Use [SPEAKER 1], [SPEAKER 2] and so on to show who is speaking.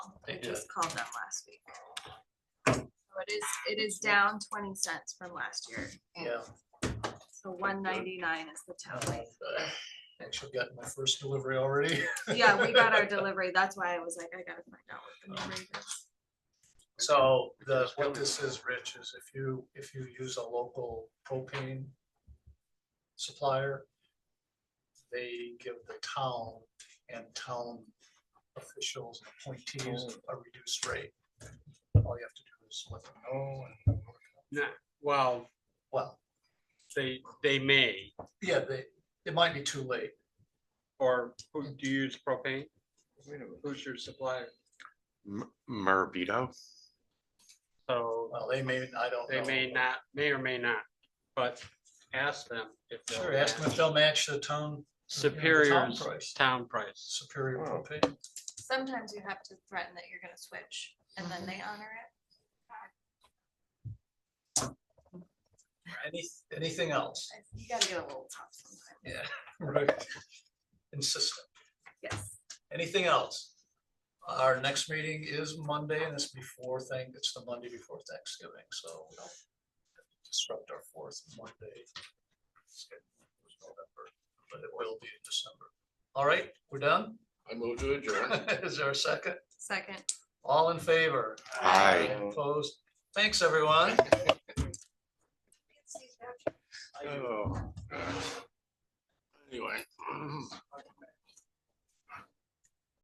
[SPEAKER 1] had just called them last week. So it is, it is down twenty cents from last year.
[SPEAKER 2] Yeah.
[SPEAKER 1] So one ninety-nine is the town rate.
[SPEAKER 2] Actually got my first delivery already.
[SPEAKER 1] Yeah, we got our delivery. That's why I was like, I gotta find out what the new rate is.
[SPEAKER 2] So the, what this is, Rich, is if you, if you use a local propane supplier, they give the town and town officials and appointees a reduced rate. All you have to do is let them know and,
[SPEAKER 3] Well,
[SPEAKER 2] well,
[SPEAKER 3] they, they may,
[SPEAKER 2] yeah, they, it might be too late.
[SPEAKER 3] or who do you use propane? Who's your supplier?
[SPEAKER 4] M- Murbido.
[SPEAKER 3] So uh,
[SPEAKER 2] Well, they may, I don't
[SPEAKER 3] they
[SPEAKER 2] know.
[SPEAKER 3] may not, may or may not, but ask them if they'll.
[SPEAKER 2] Sure, ask them if they'll match the town
[SPEAKER 3] Superior's
[SPEAKER 2] price.
[SPEAKER 3] town price.
[SPEAKER 2] superior
[SPEAKER 4] Wow.
[SPEAKER 2] propane.
[SPEAKER 1] Sometimes you have to threaten that you're gonna switch and then they honor it.
[SPEAKER 2] Any, anything else?
[SPEAKER 1] You gotta get a little tough sometimes.
[SPEAKER 2] Yeah, right. Insistent.
[SPEAKER 1] Yes.
[SPEAKER 2] Anything else? Our next meeting is Monday and it's before thank, it's the Monday before Thanksgiving, so we don't disrupt our fourth Monday. schedule with November, But it will be in December. All right, we're done?
[SPEAKER 5] I move to adjourn.
[SPEAKER 2] Is there a second?
[SPEAKER 1] Second.
[SPEAKER 2] All in favor?
[SPEAKER 4] Aye.
[SPEAKER 2] Opposed? Thanks, everyone.
[SPEAKER 5] Oh, gosh. Anyway.